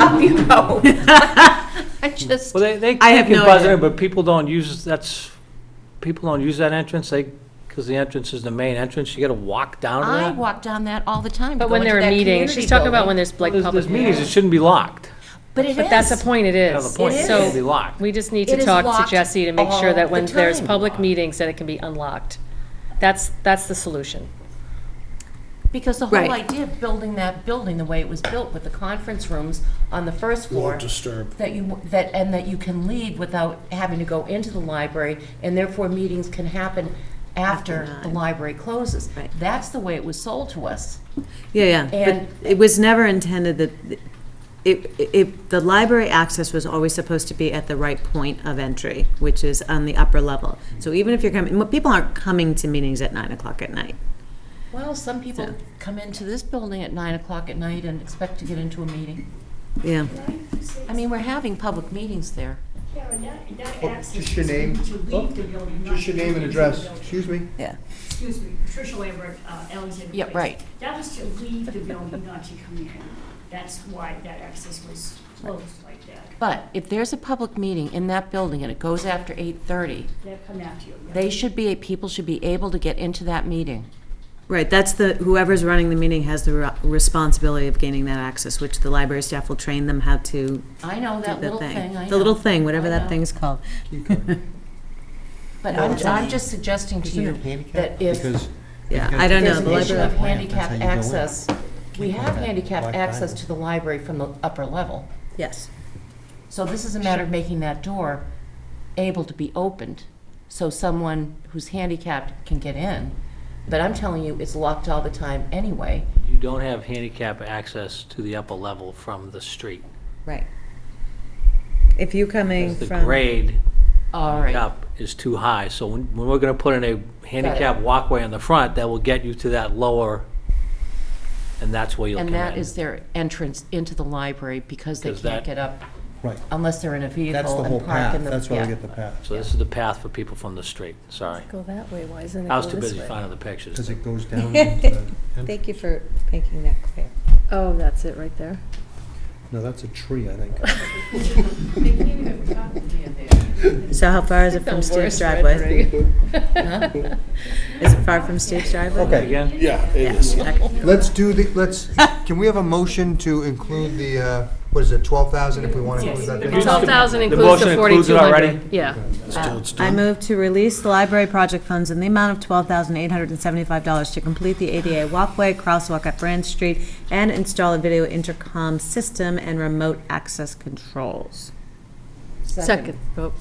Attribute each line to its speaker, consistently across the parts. Speaker 1: help you out. I just,
Speaker 2: Well, they, they
Speaker 3: I have
Speaker 2: they can
Speaker 3: no
Speaker 2: buzz
Speaker 3: idea.
Speaker 2: in, but people don't use, that's, people don't use that entrance, they, because the entrance is the main entrance, you gotta walk down to
Speaker 1: I
Speaker 2: that.
Speaker 1: walk down that all the time. to
Speaker 4: But
Speaker 1: go
Speaker 4: when
Speaker 1: into
Speaker 4: there are
Speaker 1: that
Speaker 4: meetings,
Speaker 1: community
Speaker 4: she's talking about
Speaker 1: building.
Speaker 4: when there's like
Speaker 2: There's,
Speaker 4: public.
Speaker 2: there's meetings, it shouldn't be locked.
Speaker 1: But it is.
Speaker 4: But that's the point, it
Speaker 2: That's
Speaker 4: is.
Speaker 2: the point, it shouldn't be
Speaker 4: So
Speaker 2: locked.
Speaker 4: we just need
Speaker 1: It
Speaker 4: to
Speaker 1: is
Speaker 4: talk
Speaker 1: locked
Speaker 4: to Jesse to make sure
Speaker 1: all
Speaker 4: that
Speaker 1: the
Speaker 4: when there's
Speaker 1: time.
Speaker 4: public meetings, that it can be unlocked. That's, that's the solution.
Speaker 1: Because the whole
Speaker 3: Right.
Speaker 1: idea of building that building the way it was built with the conference rooms on the first floor.
Speaker 5: Won't disturb.
Speaker 1: That you, that, and that you can leave without having to go into the library, and therefore meetings can happen after
Speaker 3: After
Speaker 1: the
Speaker 3: nine.
Speaker 1: library closes.
Speaker 3: Right.
Speaker 1: That's the way it was sold to us.
Speaker 3: Yeah, yeah,
Speaker 1: And-
Speaker 3: but it was never intended that, it, it, the library access was always supposed to be at the right point of entry, which is on the upper level. So even if you're coming, people aren't coming to meetings at nine o'clock at night.
Speaker 1: Well, some people
Speaker 3: So-
Speaker 1: come into this building at nine o'clock at night and expect to get into a meeting.
Speaker 3: Yeah,
Speaker 1: I mean, we're having public meetings there.
Speaker 6: Just your name, Oh, just your name and address, excuse me?
Speaker 3: yeah.
Speaker 6: Excuse me, Patricia Lambert, uh, Alexander.
Speaker 1: Yeah,
Speaker 6: Place.
Speaker 1: right.
Speaker 6: That was to leave the building, not to come in. That's why that access was closed like that.
Speaker 1: But if there's a public meeting in that building and it goes after eight-thirty,
Speaker 6: They'll come after you. yeah.
Speaker 1: they should be, people should be able to get into that meeting.
Speaker 3: Right, that's the, whoever's running the meeting has the re- responsibility of gaining that access, which the library staff will train them how to do
Speaker 1: I know that
Speaker 3: the
Speaker 1: little
Speaker 3: thing.
Speaker 1: thing, I know.
Speaker 3: The little thing, whatever
Speaker 1: I
Speaker 3: that
Speaker 1: know.
Speaker 3: thing's called.
Speaker 1: But I'm, I'm just suggesting to you that if
Speaker 7: Because
Speaker 3: Yeah,
Speaker 7: Because
Speaker 3: I don't know.
Speaker 1: there's
Speaker 3: The
Speaker 1: an issue of
Speaker 3: library,
Speaker 1: handicap
Speaker 7: That's how you go in.
Speaker 1: access, we
Speaker 7: Can't go
Speaker 1: have
Speaker 7: back.
Speaker 1: handicap
Speaker 7: Black
Speaker 1: access
Speaker 7: diamond.
Speaker 1: to the library from the upper level.
Speaker 3: yes.
Speaker 1: So this is a matter of making that door able to be opened, so someone who's handicapped can get in. But I'm telling you, it's locked all the time anyway.
Speaker 2: You don't have handicap access to the upper level from the street.
Speaker 3: Right. If you're coming
Speaker 2: 'cause The
Speaker 3: from.
Speaker 2: grade
Speaker 1: All right,
Speaker 2: up is too high, so when, when we're gonna put in a handicap walkway on the front, that will get you to that lower, and that's where you'll come
Speaker 1: and
Speaker 2: in.
Speaker 1: that is their entrance into the library because they
Speaker 2: Because
Speaker 1: can't
Speaker 2: that-
Speaker 1: get up
Speaker 7: Right,
Speaker 1: unless they're in a
Speaker 7: that's
Speaker 1: vehicle
Speaker 7: the whole
Speaker 1: and park
Speaker 7: path,
Speaker 1: in the.
Speaker 7: that's why
Speaker 1: yeah.
Speaker 7: we get the path,
Speaker 2: So this is the path for people from the street, sorry.
Speaker 4: Go that way, why isn't it
Speaker 2: I was too busy finding the pictures.
Speaker 7: because it goes down into the,
Speaker 3: Thank you for making that clear.
Speaker 4: Oh, that's it, right there.
Speaker 7: no, that's a tree, I think.
Speaker 3: So how far is it from Steve's driveway? Is it far from Steve's driveway?
Speaker 7: Okay,
Speaker 2: Again?
Speaker 5: Yeah, it is.
Speaker 6: Let's
Speaker 7: let's do the, let's, can we have a motion to include the, uh, what is it, twelve thousand if we want to include that?
Speaker 2: Yes.
Speaker 4: Twelve thousand
Speaker 2: The
Speaker 4: includes the
Speaker 2: motion includes it
Speaker 4: forty-two
Speaker 2: already?
Speaker 4: hundred. Yeah.
Speaker 3: I move to release the library project funds in the amount of twelve thousand eight hundred and seventy-five dollars to complete the ADA walkway, crosswalk at Brand Street, and install a video intercom system and remote access controls.
Speaker 4: Second. vote.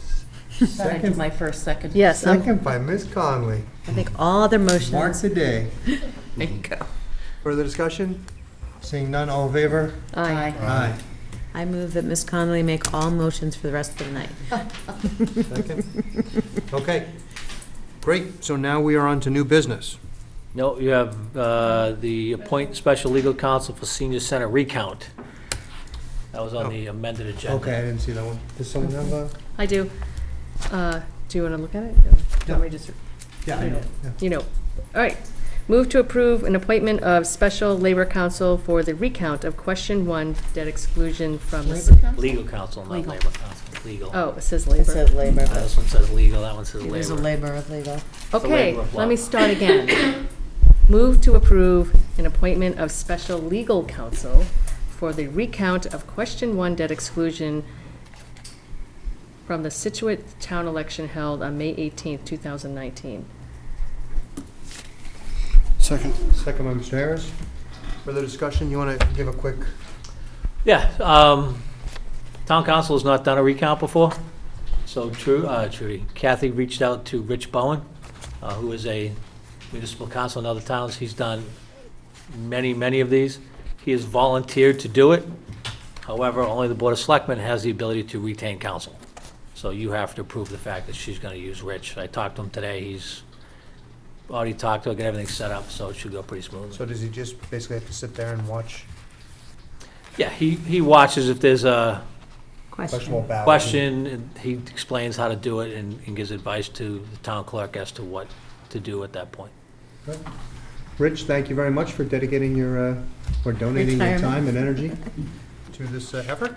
Speaker 1: Thought I did my first second.
Speaker 4: Yes, um,
Speaker 7: Second by Ms. Conley,
Speaker 3: I think all other
Speaker 7: mark
Speaker 3: motions.
Speaker 7: the day. Further discussion? Seeing none, all in favor?
Speaker 4: aye.
Speaker 1: Aye.
Speaker 7: Aye.
Speaker 3: I move that Ms. Connolly make all motions for the rest of the night.
Speaker 7: Second? Okay, great, so now we are on to new business.
Speaker 2: No, you have uh, the appoint special legal counsel for senior center recount. That was on the amended agenda.
Speaker 7: Oh. Okay, I didn't see that one. Does someone have a?
Speaker 4: I do. Uh, Do you want to look at it?
Speaker 7: No.
Speaker 4: Let me just
Speaker 7: Yeah, I know. yeah.
Speaker 4: you know. All right. Move to approve an appointment of special labor counsel for the recount of question one, debt exclusion from the. s-
Speaker 1: Labor Council?
Speaker 2: Legal counsel, not
Speaker 1: Legal.
Speaker 2: labor counsel, legal. Uh,
Speaker 4: Oh, it says labor.
Speaker 3: labor.
Speaker 2: This one says legal, that one says labor.
Speaker 3: labor of legal.
Speaker 4: Okay,
Speaker 2: labor of
Speaker 4: let
Speaker 2: love.
Speaker 4: me start again. Move to approve an appointment of special legal counsel for the recount of question one, debt exclusion from the Situate town election held on May eighteenth, two thousand nineteen.
Speaker 5: Second.
Speaker 7: Second by Mr. Harris. Further discussion, you want to give a quick?
Speaker 2: Yeah, um, town council has not done a recount before, so Tru- uh, Trudy, Kathy reached out to Rich Bowen, uh, who is a municipal council in other towns. He's done many, many of these. He has volunteered to do it. However, only the Board of Selectmen has the ability to retain counsel. So you have to approve the fact that she's going to use Rich. I talked to him today. He's already talked to her, got everything set up, so it should go pretty smoothly.
Speaker 7: So does he just basically have to sit there and watch
Speaker 2: Yeah, he, he watches if there's a
Speaker 7: questionable
Speaker 3: Question.
Speaker 7: ballots?
Speaker 2: question, and he explains how to do it and and gives advice to the town clerk as to what to do at that point.
Speaker 7: Rich, thank you very much for dedicating your, uh, or donating your time and energy to this uh, effort.